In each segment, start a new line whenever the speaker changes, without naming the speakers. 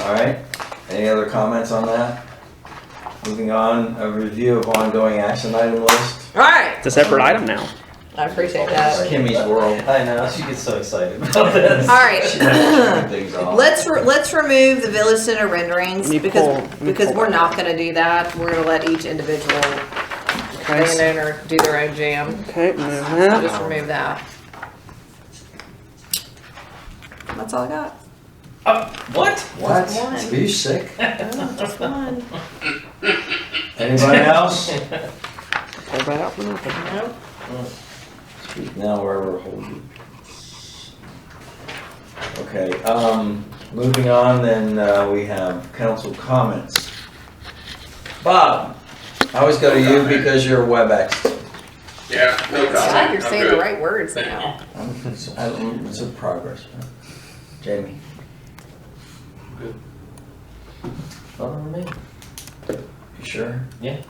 All right, any other comments on that? Moving on, a review of ongoing action item list.
All right.
It's a separate item now.
I appreciate that.
Kimmy's world.
I know, she gets so excited about this.
All right.
Things off.
Let's re- let's remove the village center renderings
Let me
because
pull- let me
because
pull
we're
that.
not going to do that. We're going to let each individual landowner do their own jam.
Okay, move
So
that.
just remove that. That's all I got.
Uh, what?
What?
One.
Are you sick?
Oh, just one.
Anybody else?
Pull that out for nothing.
Nope.
Speak Now wherever hold you. Okay, um, moving on then, uh, we have council comments. Bob, I always go to you because you're WebEx.
Yeah, no problem.
Glad you're saying the
I'm good.
right words now.
It's a progress, right? Jamie?
Good.
Other than me? You sure?
Yeah.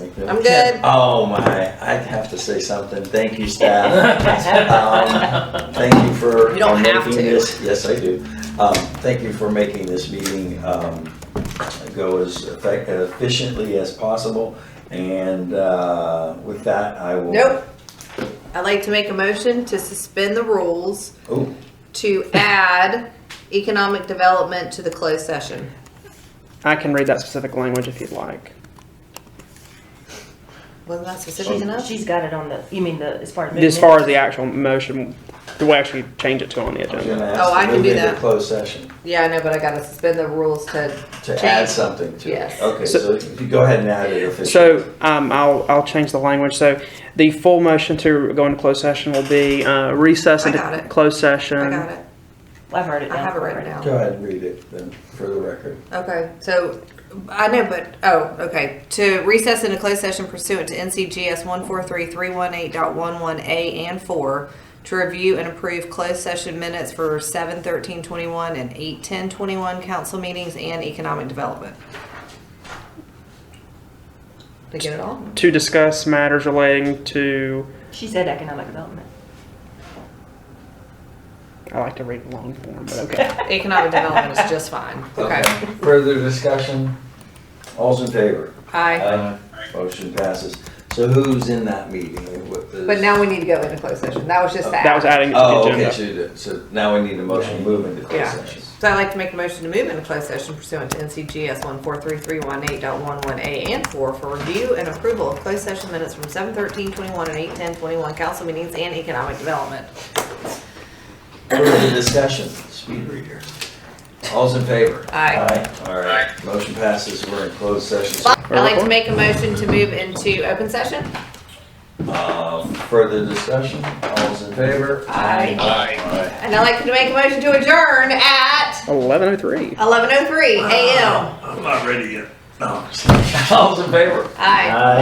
Like that?
I'm good.
Oh my, I have to say something. Thank you, staff. Um, Thank you for.
You don't
for
have
making
to.
this- Yes, I do. Um, Thank you for making this meeting um, go as effect- efficiently as possible. And uh, with that, I will.
Nope. I'd like to make a motion to suspend the rules
Oh,
to add economic development to the closed session.
I can read that specific language if you'd like.
Wasn't that specific enough?
She's got it on the, you mean the, as far as.
As far as the actual motion, the way I actually change it to on the
I was
agenda.
gonna
Oh, I
ask
can
to move
do
into
that.
closed session
Yeah, I know, but I gotta suspend the rules to
to add
Change.
something to it.
Yes.
Okay,
So-
so you go ahead and add it officially.
So um, I'll, I'll change the language. So the full motion to go into closed session will be uh, recess
I
into
got it.
closed session.
I got it.
I've heard it
I
down.
have it written down.
Go ahead and read it then for the record.
Okay, so, I know, but, oh, okay. To recess into closed session pursuant to NCGS one four three three one eight dot one one A and four, to review and approve closed session minutes for seven thirteen twenty-one and eight ten twenty-one council meetings and economic development. Did I get it all?
To discuss matters relating to,
She said economic development.
I like to read long form, but okay.
Economic development is just fine. Okay.
Further discussion? All's in favor?
Aye.
Motion passes. So who's in that meeting? What is-
But now we need to go into closed session. That was just that.
That was adding it to the
Oh, okay,
agenda.
so, you did- so now we need a motion to move into closed
Yeah.
session.
So I'd like to make a motion to move into closed session pursuant to NCGS one four three three one eight dot one one A and four for review and approval of closed session minutes from seven thirteen twenty-one and eight ten twenty-one council meetings and economic development.
Further discussion, speed reader. All's in favor?
Aye.
All right, motion passes, we're in closed session.
I'd like to make a motion to move into open session.
Uh, Further discussion, all's in favor?
Aye.
Aye.
And I'd like to make a motion to adjourn at
1103.
eleven oh three AM.
I'm not ready yet. No. All's in favor?
Aye.